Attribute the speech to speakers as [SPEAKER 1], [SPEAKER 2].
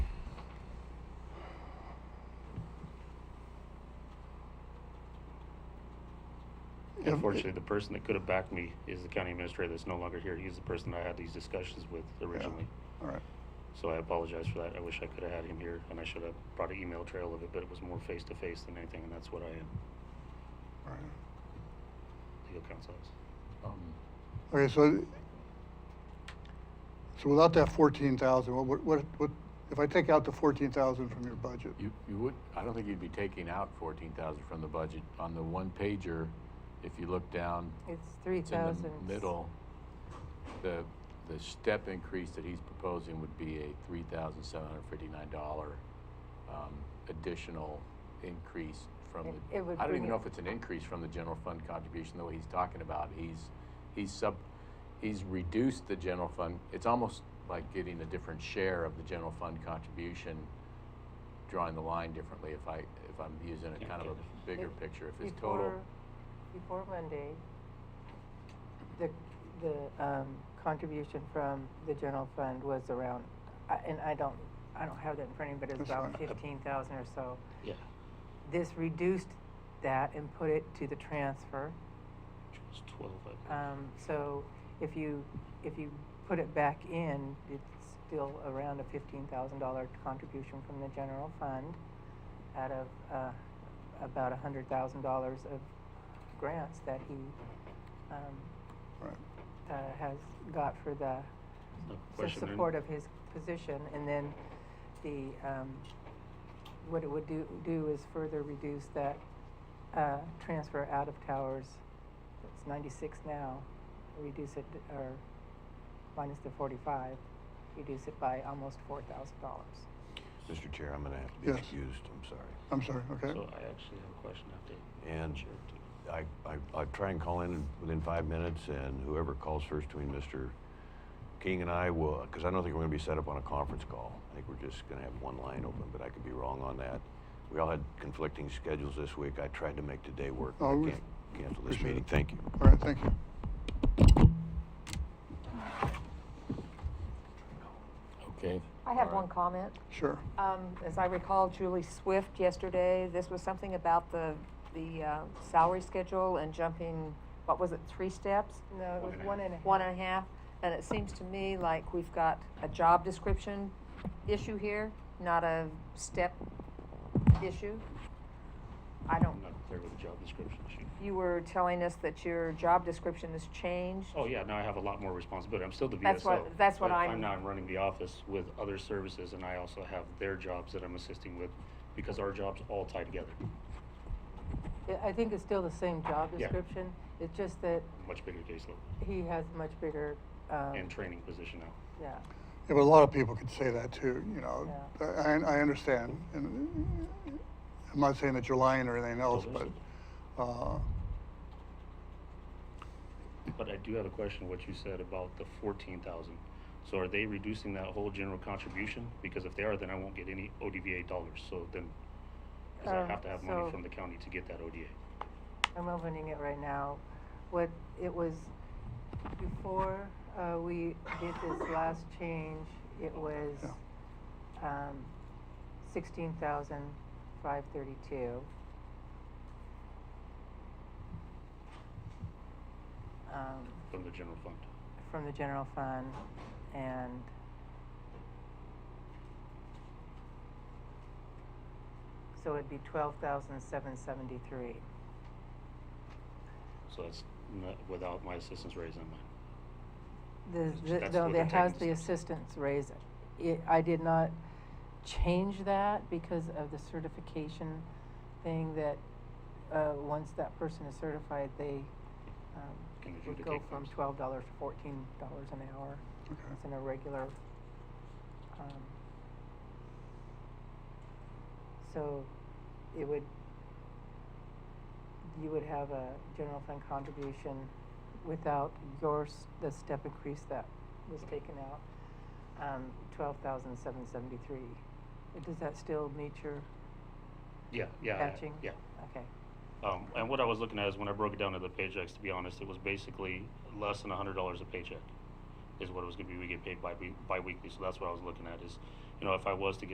[SPEAKER 1] Unfortunately, the person that could have backed me is the county administrator that's no longer here. He's the person I had these discussions with originally.
[SPEAKER 2] All right.
[SPEAKER 1] So I apologize for that. I wish I could have had him here and I should have brought an email trail of it, but it was more face to face than anything, and that's what I am.
[SPEAKER 2] All right.
[SPEAKER 1] Legal counsel is.
[SPEAKER 3] Um,
[SPEAKER 2] Okay, so, so without that fourteen thousand, what, what, what, if I take out the fourteen thousand from your budget?
[SPEAKER 3] You, you would, I don't think you'd be taking out fourteen thousand from the budget. On the one pager, if you look down,
[SPEAKER 4] It's three
[SPEAKER 3] it's in
[SPEAKER 4] thousand.
[SPEAKER 3] the middle. The, the step increase that he's proposing would be a three thousand seven hundred fifty-nine dollar, um, additional increase from
[SPEAKER 4] It-
[SPEAKER 3] the.
[SPEAKER 4] it would
[SPEAKER 3] I don't
[SPEAKER 4] bring
[SPEAKER 3] even know
[SPEAKER 4] it-
[SPEAKER 3] if it's an increase from the general fund contribution, the way he's talking about. He's, he's sub, he's reduced the general fund. It's almost like getting a different share of the general fund contribution, drawing the line differently if I, if I'm using a kind of a bigger
[SPEAKER 4] If-
[SPEAKER 3] picture. If his total,
[SPEAKER 4] Before Monday, the, the, um, contribution from the general fund was around, I- and I don't, I don't have that in front of me, but it's
[SPEAKER 2] That's
[SPEAKER 4] about
[SPEAKER 2] fine.
[SPEAKER 4] fifteen thousand or so.
[SPEAKER 1] Yeah.
[SPEAKER 4] This reduced that and put it to the transfer.
[SPEAKER 1] It was twelve, I believe.
[SPEAKER 4] Um, so if you, if you put it back in, it's still around a fifteen thousand dollar contribution from the general fund out of, uh, about a hundred thousand dollars of grants that he, um,
[SPEAKER 2] Right.
[SPEAKER 4] uh, has got for the,
[SPEAKER 1] No
[SPEAKER 4] the
[SPEAKER 1] question. And-
[SPEAKER 4] support of his position. And then the, um, what it would do, do is further reduce that, uh, transfer out of towers. It's ninety-six now, reduce it, or minus the forty-five, reduce it by almost four thousand dollars.
[SPEAKER 5] Mr. Chair, I'm going to have to be
[SPEAKER 2] Yes.
[SPEAKER 5] excused, I'm sorry.
[SPEAKER 2] I'm sorry, okay?
[SPEAKER 1] So I actually have a question after.
[SPEAKER 5] And I, I, I try and call in within five minutes, and whoever calls first between Mr. King and I will, because I don't think we're going to be set up on a conference call. I think we're just going to have one line open, but I could be wrong on that. We all had conflicting schedules this week. I tried to make today work, but I
[SPEAKER 2] Oh, we-
[SPEAKER 5] can't cancel this
[SPEAKER 2] appreciate
[SPEAKER 5] meeting.
[SPEAKER 2] it.
[SPEAKER 5] Thank you.
[SPEAKER 2] All right, thank you.
[SPEAKER 3] okay?
[SPEAKER 6] I have
[SPEAKER 3] all right.
[SPEAKER 6] one comment.
[SPEAKER 2] Sure.
[SPEAKER 6] Um, As I recall, Julie Swift yesterday, this was something about the, the uh, salary schedule and jumping, what was it, three steps?
[SPEAKER 4] No, it was one and a half.
[SPEAKER 6] One and a half? And it seems to me like we've got a job description issue here, not a step issue. I don't,
[SPEAKER 1] I'm not clear with the job description sheet.
[SPEAKER 6] you were telling us that your job description has changed.
[SPEAKER 1] Oh, yeah, now I have a lot more responsibility. I'm still the VSO.
[SPEAKER 6] That's what- that's what
[SPEAKER 1] but
[SPEAKER 6] I'm-
[SPEAKER 1] now I'm running the office with other services and I also have their jobs that I'm assisting with because our jobs all tie together.
[SPEAKER 4] I- I think it's still the same job
[SPEAKER 1] Yeah.
[SPEAKER 4] description, it's just that
[SPEAKER 1] Much bigger caseload
[SPEAKER 4] he has much bigger, um,
[SPEAKER 6] Oh.
[SPEAKER 1] and training position now.
[SPEAKER 4] yeah.
[SPEAKER 2] Yeah, but a lot of people could say that too, you know. I,
[SPEAKER 4] Yeah.
[SPEAKER 2] I understand, and I'm not saying that you're lying or anything else,
[SPEAKER 1] Oh,
[SPEAKER 2] but, uh,
[SPEAKER 1] But I do have a question, what you said about the fourteen thousand. So are they reducing that whole general contribution? Because if they are, then I won't get any ODVA dollars, so then, because I
[SPEAKER 6] Oh,
[SPEAKER 4] Um,
[SPEAKER 1] have to have money
[SPEAKER 4] so-
[SPEAKER 1] from the county to get that ODA.
[SPEAKER 4] I'm opening it right now. What, it was before, uh, we did this last change, it was, um, sixteen thousand five thirty-two. Um,
[SPEAKER 1] from the general fund.
[SPEAKER 4] from the general fund and so it'd be twelve thousand seven seventy-three.
[SPEAKER 1] So that's not, without my assistance raise on mine.
[SPEAKER 4] The,
[SPEAKER 1] So
[SPEAKER 4] the,
[SPEAKER 1] that's
[SPEAKER 4] no,
[SPEAKER 1] where
[SPEAKER 4] that
[SPEAKER 1] they're
[SPEAKER 4] has
[SPEAKER 1] taking
[SPEAKER 4] the
[SPEAKER 1] the steps.
[SPEAKER 4] assistance raise. It, I did not change that because of the certification thing that, uh, once that person is certified, they, um,
[SPEAKER 1] Can
[SPEAKER 4] would
[SPEAKER 1] adjudicate
[SPEAKER 4] go from
[SPEAKER 1] things.
[SPEAKER 4] twelve dollars to fourteen dollars an hour.
[SPEAKER 2] uh, Okay.
[SPEAKER 4] It's an irregular, um, so it would, you would have a general fund contribution without yours, the step increase that was taken out, um, twelve thousand seven seventy-three. Does that still meet your
[SPEAKER 1] Yeah, yeah, I-
[SPEAKER 4] matching?
[SPEAKER 1] yeah.
[SPEAKER 4] Okay.
[SPEAKER 1] Um, and what I was looking at is when I broke it down to the paychecks, to be honest, it was basically less than a hundred dollars a paycheck is what it was gonna be. We get paid bi- bi- bi-weekly, so that's what I was looking at is, you know, if I was to get